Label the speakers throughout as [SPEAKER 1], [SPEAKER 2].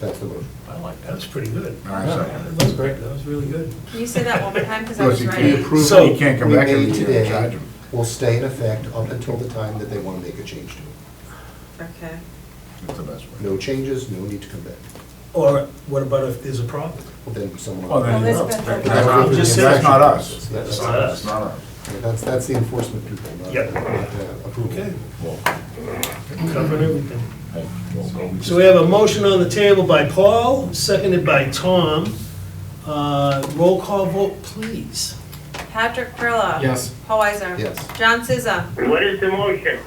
[SPEAKER 1] That's the motion.
[SPEAKER 2] I like that. That was pretty good.
[SPEAKER 3] All right, second.
[SPEAKER 2] That was great. That was really good.
[SPEAKER 4] Can you say that one more time, because I
[SPEAKER 3] Because
[SPEAKER 4] was
[SPEAKER 3] you can't
[SPEAKER 4] writing?
[SPEAKER 3] approve
[SPEAKER 2] So,
[SPEAKER 3] it, you can't come
[SPEAKER 1] we
[SPEAKER 3] back
[SPEAKER 1] made
[SPEAKER 3] every year and
[SPEAKER 1] today
[SPEAKER 3] charge them.
[SPEAKER 1] Will stay in effect up until the time that they want to make a change to it.
[SPEAKER 4] Okay.
[SPEAKER 3] That's the best way.
[SPEAKER 1] No changes, no need to come back.
[SPEAKER 2] Or what about if there's a problem?
[SPEAKER 1] Well, Then someone.
[SPEAKER 3] Well, then-
[SPEAKER 5] Well,
[SPEAKER 3] That's
[SPEAKER 5] that's been-
[SPEAKER 3] not-
[SPEAKER 2] Just say-
[SPEAKER 3] that's not us.
[SPEAKER 1] Yeah, that's-
[SPEAKER 2] That's not us.
[SPEAKER 3] That's not us.
[SPEAKER 1] yeah, That's, that's the enforcement people, not
[SPEAKER 2] Yep.
[SPEAKER 1] not, uh,
[SPEAKER 2] Okay,
[SPEAKER 1] approval.
[SPEAKER 2] covered everything. So we have a motion on the table by Paul, seconded by Tom. Uh, Roll call vote, please.
[SPEAKER 4] Patrick Perla.
[SPEAKER 6] Yes.
[SPEAKER 4] Paul Weiser.
[SPEAKER 1] Yes.
[SPEAKER 4] John Siza.
[SPEAKER 7] What is the motion?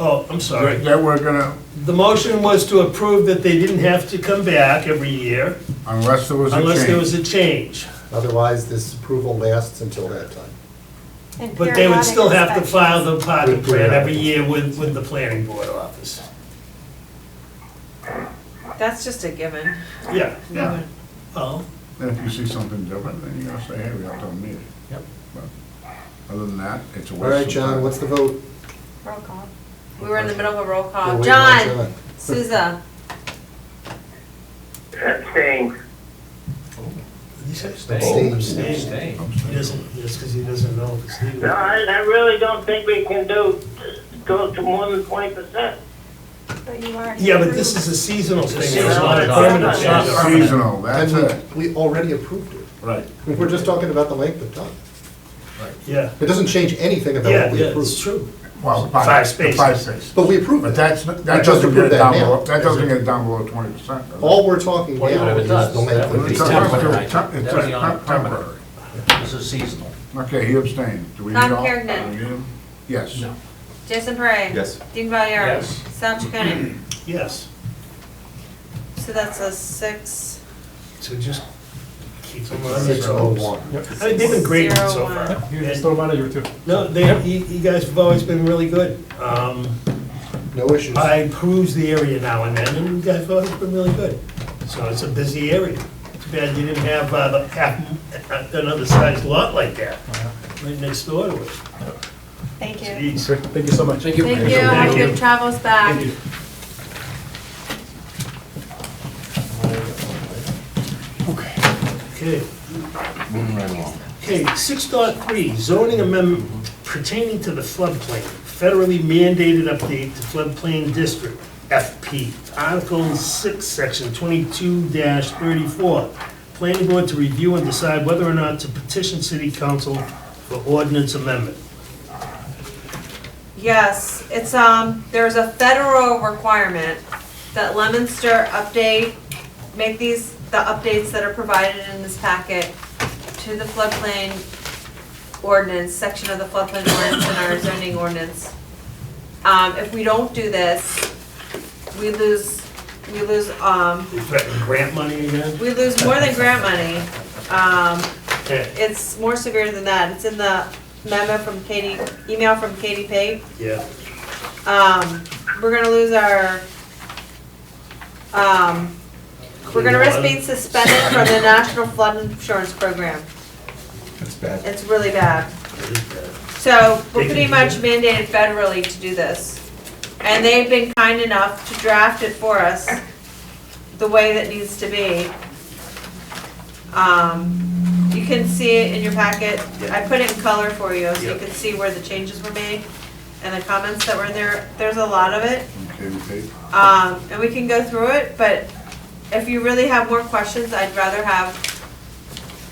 [SPEAKER 2] Oh, I'm sorry.
[SPEAKER 3] That we're gonna,
[SPEAKER 2] The motion was to approve that they didn't have to come back every year
[SPEAKER 3] unless there was a change.
[SPEAKER 2] unless there was a change.
[SPEAKER 1] Otherwise, this approval lasts until that time.
[SPEAKER 5] And
[SPEAKER 2] But they would still have to
[SPEAKER 5] periodic
[SPEAKER 2] file the parking
[SPEAKER 1] With periodic.
[SPEAKER 2] plan every year with, with the planning board office.
[SPEAKER 4] That's just a given.
[SPEAKER 2] Yeah,
[SPEAKER 3] Yeah.
[SPEAKER 2] well,
[SPEAKER 3] Then if you see something different, then you gotta say, hey, we have to meet it.
[SPEAKER 2] Yep.
[SPEAKER 3] Other than that, it's a waste of
[SPEAKER 1] All right, John,
[SPEAKER 3] time.
[SPEAKER 1] what's the vote?
[SPEAKER 5] inspections. Roll call.
[SPEAKER 4] We were in the middle of a roll
[SPEAKER 1] We're
[SPEAKER 4] call.
[SPEAKER 1] waiting on
[SPEAKER 4] John Siza.
[SPEAKER 7] Abstain.
[SPEAKER 2] he said
[SPEAKER 1] Abstain.
[SPEAKER 2] abstain. Abstain.
[SPEAKER 3] I'm
[SPEAKER 2] He
[SPEAKER 3] saying.
[SPEAKER 2] doesn't, just because he doesn't know if it's
[SPEAKER 7] No,
[SPEAKER 2] legal.
[SPEAKER 7] I, I really don't think we can do, go to more than twenty percent.
[SPEAKER 5] But you already.
[SPEAKER 2] Yeah, but this is a seasonal thing, it's
[SPEAKER 7] seasonal,
[SPEAKER 2] not a
[SPEAKER 7] it's
[SPEAKER 2] permanent
[SPEAKER 7] not-
[SPEAKER 2] change.
[SPEAKER 7] it's not-
[SPEAKER 3] Seasonal, that's it.
[SPEAKER 1] And we, we already approved it.
[SPEAKER 3] Right.
[SPEAKER 1] We're just talking about the length of time.
[SPEAKER 2] Yeah,
[SPEAKER 1] It doesn't change anything about
[SPEAKER 2] yeah,
[SPEAKER 1] what we
[SPEAKER 2] yeah, it's
[SPEAKER 1] approved.
[SPEAKER 2] true.
[SPEAKER 3] Well, the
[SPEAKER 2] Five
[SPEAKER 3] five, the
[SPEAKER 2] spaces.
[SPEAKER 3] five spaces.
[SPEAKER 1] But we approved
[SPEAKER 3] But
[SPEAKER 1] it.
[SPEAKER 3] that's,
[SPEAKER 1] We
[SPEAKER 3] that
[SPEAKER 1] just
[SPEAKER 3] doesn't get
[SPEAKER 1] approved
[SPEAKER 3] it down
[SPEAKER 1] that now.
[SPEAKER 3] below, that doesn't get it down below twenty percent.
[SPEAKER 1] All we're talking
[SPEAKER 8] Well, even
[SPEAKER 1] now
[SPEAKER 8] if it
[SPEAKER 1] is
[SPEAKER 8] does,
[SPEAKER 1] the length
[SPEAKER 8] that would
[SPEAKER 1] of
[SPEAKER 8] be
[SPEAKER 1] the
[SPEAKER 3] It's
[SPEAKER 1] time.
[SPEAKER 8] temporary.
[SPEAKER 3] It's
[SPEAKER 8] That would be on
[SPEAKER 3] temp- temporary.
[SPEAKER 8] This is seasonal.
[SPEAKER 3] Okay, he abstained. Do we need all?
[SPEAKER 4] Tom Kergnen.
[SPEAKER 3] do we need him? Yes.
[SPEAKER 8] No.
[SPEAKER 4] Jason Parra.
[SPEAKER 1] Yes.
[SPEAKER 4] Dean Valier.
[SPEAKER 8] Yes.
[SPEAKER 4] Sal Chaconi.
[SPEAKER 2] Yes,
[SPEAKER 4] So that's a six.
[SPEAKER 2] so just keep them on
[SPEAKER 1] Six oh
[SPEAKER 2] their toes.
[SPEAKER 1] one.
[SPEAKER 2] I mean, they've been great
[SPEAKER 4] Zero,
[SPEAKER 2] so
[SPEAKER 4] one.
[SPEAKER 2] far.
[SPEAKER 6] You just throw them out of here too.
[SPEAKER 2] No, they, you you guys have always been really good. Um,
[SPEAKER 1] No issues.
[SPEAKER 2] I peruse the area now and then, and you guys have always been really good. So it's a busy area. Too bad you didn't have uh, the half, uh, another sized lot like that, right next door to it.
[SPEAKER 5] Thank you.
[SPEAKER 2] Jeez.
[SPEAKER 6] Thank you so much. Thank
[SPEAKER 4] Thank you. Have
[SPEAKER 2] Thank you.
[SPEAKER 4] good travels back.
[SPEAKER 6] Thank you.
[SPEAKER 2] Okay. Okay, six dot three, zoning amendment pertaining to the floodplain, federally mandated update to floodplain district, FP. Article six, section twenty-two thirty-four. Planning board to review and decide whether or not to petition city council for ordinance amendment.
[SPEAKER 4] Yes, it's, um, there's a federal requirement that Lemonster update, make these, the updates that are provided in this packet to the floodplain ordinance, section of the floodplain ordinance and our zoning ordinance. Um, if we don't do this, we lose, we lose, um,
[SPEAKER 2] They threaten grant money again?
[SPEAKER 4] we lose more than grant money. Um,
[SPEAKER 2] Okay,
[SPEAKER 4] it's more severe than that. It's in the memo from Katie, email from Katie Pate.
[SPEAKER 2] yeah.
[SPEAKER 4] Um, we're gonna lose our, um, we're gonna risk being suspended from the National Flood Insurance Program.
[SPEAKER 1] It's bad.
[SPEAKER 4] It's really bad. So we're pretty much mandated federally to do this. And they've been kind enough to draft it for us the way that needs to be. Um, you can see it in your packet. I put it in color for you so you can see where the changes were made and the comments that were in there. There's a lot of it.
[SPEAKER 3] Okay, we take.
[SPEAKER 4] Um, and we can go through it, but if you really have more questions, I'd rather have,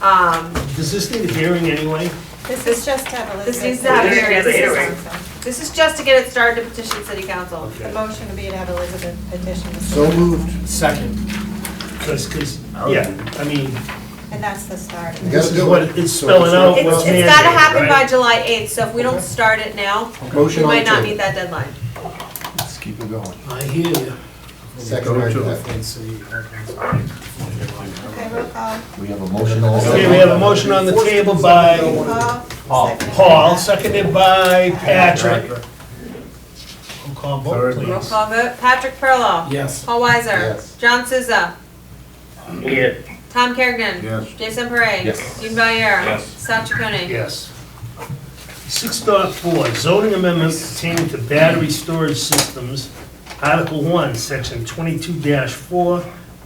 [SPEAKER 4] um,
[SPEAKER 2] Does this need a hearing anyway?
[SPEAKER 5] This is just to have
[SPEAKER 4] This
[SPEAKER 5] Elizabeth.
[SPEAKER 4] needs to have
[SPEAKER 7] a hearing.
[SPEAKER 5] This is
[SPEAKER 7] Hearing.
[SPEAKER 5] awesome.
[SPEAKER 4] This is just to get it started to petition city council.
[SPEAKER 5] The motion would be to have Elizabeth petition the
[SPEAKER 1] So
[SPEAKER 5] city,
[SPEAKER 1] moved.
[SPEAKER 6] Second.
[SPEAKER 2] Because, because,
[SPEAKER 3] I would-
[SPEAKER 2] yeah, I mean,
[SPEAKER 5] and that's the start.
[SPEAKER 1] You
[SPEAKER 2] this
[SPEAKER 1] gotta
[SPEAKER 2] is
[SPEAKER 1] do
[SPEAKER 2] what
[SPEAKER 1] it.
[SPEAKER 2] it's
[SPEAKER 1] So
[SPEAKER 2] spelling out.
[SPEAKER 4] It's,
[SPEAKER 2] what's
[SPEAKER 4] it's gotta
[SPEAKER 2] mandated,
[SPEAKER 4] happen by
[SPEAKER 2] right?
[SPEAKER 4] July eighth, so if we don't start it now, we
[SPEAKER 1] Motion on
[SPEAKER 4] might
[SPEAKER 1] the
[SPEAKER 4] not meet
[SPEAKER 1] table.
[SPEAKER 4] that deadline.
[SPEAKER 3] Let's keep it going.
[SPEAKER 2] I hear you.
[SPEAKER 1] Second right to that.
[SPEAKER 5] Okay, roll call.
[SPEAKER 8] We have a motion.
[SPEAKER 2] Okay, we have a motion on the table by
[SPEAKER 5] Paul?
[SPEAKER 8] Paul.
[SPEAKER 5] second.
[SPEAKER 2] Paul, seconded by Patrick. Roll call vote,
[SPEAKER 3] Third.
[SPEAKER 4] Roll
[SPEAKER 2] please.
[SPEAKER 4] call vote, Patrick Perla.
[SPEAKER 6] Yes.
[SPEAKER 4] Paul
[SPEAKER 1] Yes.
[SPEAKER 4] Weiser. John Souza.
[SPEAKER 7] Yes.
[SPEAKER 4] Tom Kerrigan.
[SPEAKER 3] Yes.
[SPEAKER 4] Jason Parra.
[SPEAKER 8] Yes.
[SPEAKER 4] Dean Valier. Yes. Sal Chaconi.
[SPEAKER 2] Yes. Six dot four, zoning amendment pertaining to battery storage systems, Article one, Section twenty-two four,